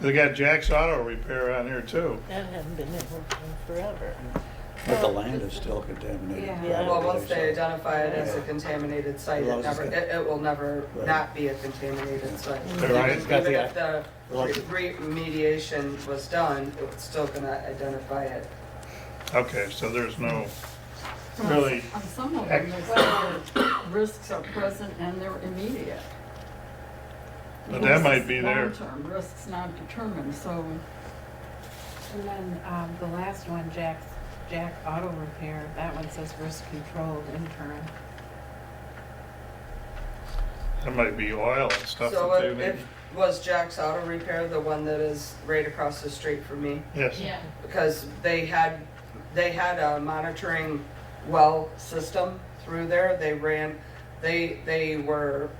They got Jack's Auto Repair on here too. That hasn't been in forever. But the land is still contaminated. Oh. Yeah. probably, Well, once they so- identify it as a Yeah. contaminated site, Well, I it was just never, it, gonna- it will never Right. not be a contaminated site. They're right. It's got Even the- if the Well, it's- re- remediation was done, it was still gonna identify it. Okay, so there's no, really, On some of them, there's other risks are present and they're immediate. But that might be there. Long-term risks not determined, so And then um, the last one, Jack's, Jack Auto Repair, that one says risk controlled interim. that might be oil and stuff So that they if, need. if, was Jack's Auto Repair the one that is right across the street from me? Yes. Because they had, they had a monitoring well system through there, they ran, they, they were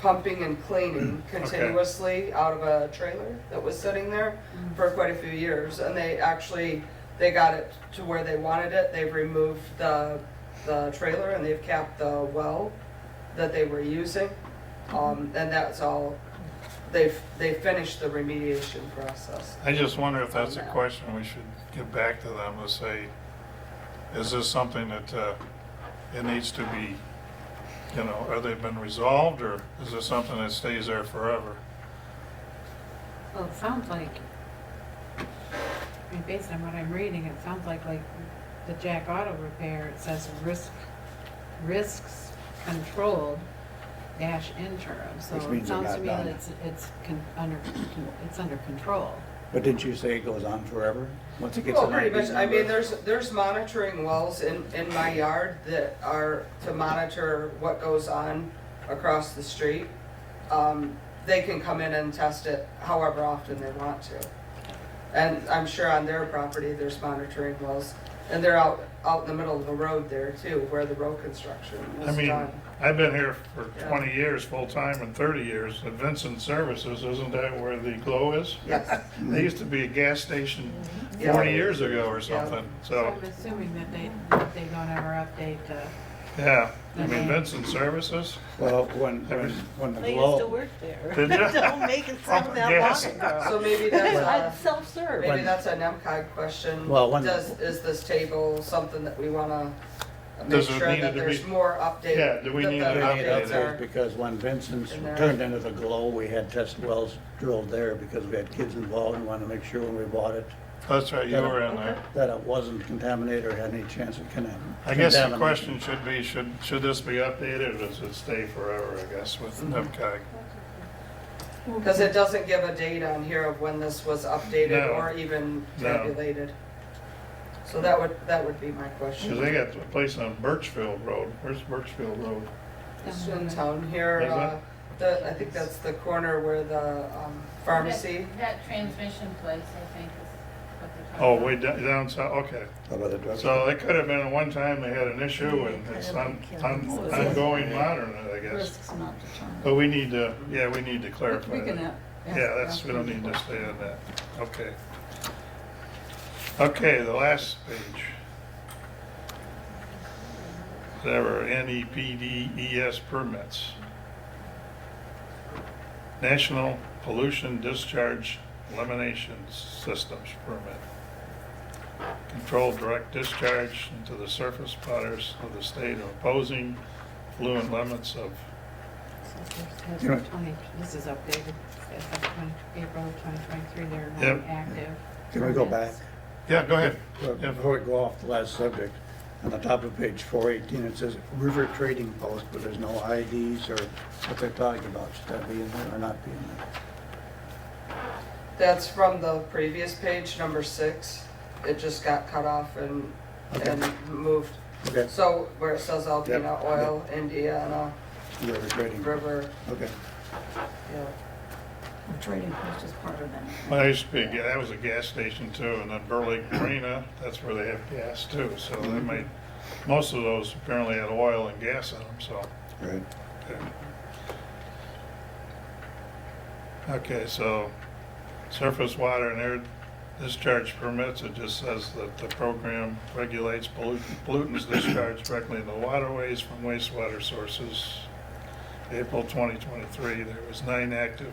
pumping and cleaning continuously out of a trailer that was sitting there for quite a few years, and they actually, they got it to where they wanted it, they've removed the, the trailer and they've capped the well that they were using, um, and that's all, they've, they finished the remediation process. I just wonder if that's a question we should get back to them to say, is this something that, uh, it needs to be, you know, are they been resolved or is this something that stays there forever? Well, it sounds like, I mean, based on what I'm reading, it sounds like like the Jack Auto Repair, it says risk, risks controlled dash interim. So Which means it it sounds got to me done. that it's, it's con- under, it's under control. But didn't you say it goes on forever? Once it gets. Well, an pretty ID much, I mean, number- there's, there's monitoring wells in, in my yard that are to monitor what goes on across the street. Um, they can come in and test it however often they want to. And I'm sure on their property, there's monitoring wells, and they're out, out in the middle of the road there too, where the road construction I was mean, done. I've been here for Yeah. twenty years, full-time and thirty years. At Vincent Services, isn't that where the glow is? Yes, Mm-hmm. They used to be a gas station Yeah. forty years ago or something, So so, I'm assuming that they, that they don't ever update the. yeah. I mean, Vincent Services, Well, when, when, when the I used to glow, work there. Did ya? Don't make it sound that Yes. long ago. so uh, maybe I'm that's a, self-serve. maybe that's an MCOG question. Well, when- Does, is this table something that we wanna make Does it sure need that to be- there's more updated? Yeah, do we that need the an they need update updates are- updates because when Vincent's In there. turned into the glow, we had test wells drilled there because we had kids involved and wanted to make sure when we bought it that's right, you were in there. that it wasn't contaminated or had any chance of contamin- contamination. I guess the question should be, should, should this be updated or does it stay forever, I guess, with Mm-hmm. NIPCOG? Because it doesn't give a date on here of when this was updated No. or even No. tabulated. So that would, that would be my Because question. they got a place on Birchfield Road. Where's Birchfield Road? It's in town here, Is it? uh, the, I think that's the corner where the um, pharmacy, That- That transmission place, I think, is what they're talking Oh, about. way down, down south, okay. About the drug. So it could have been at one time they had an issue and it's on, on, ongoing modern, I guess. risks not determined. But we need to, yeah, we need to But Oh, clarify We can that. a- ask Yeah, that's, we don't after. need to stay on that. Okay. Okay, the last page. Whatever, E NEPDES permits. National Pollution Discharge Elimination Systems Permit. Controlled direct discharge into the surface waters of the state opposing fluid limits of You know- 20 This is updated, it's up 20 April 2023, they're Yep. not active. Can we go back? Yeah, go ahead. Well, Yeah. Before we go off the last subject, on the top of page four eighteen, it says river trading post, but there's no IDs or what they're talking about. Should that be in there or not be in there? that's from the previous page, number six. It just got cut off and, and moved. Okay, So where it says Alpena Yep. Oil, Indiana river trading. River, Okay. yeah. The Trading post is part of that. Well, I used to be, a ga- that was a gas station too, and then Burley Marina, that's where they have gas too, so they made, most of those apparently had oil and gas in them, so. Right. okay. Okay, so surface water and air discharge permits, it just says that the program regulates pollut- pollutants discharged directly into waterways from wastewater sources. April 2023, there was nine active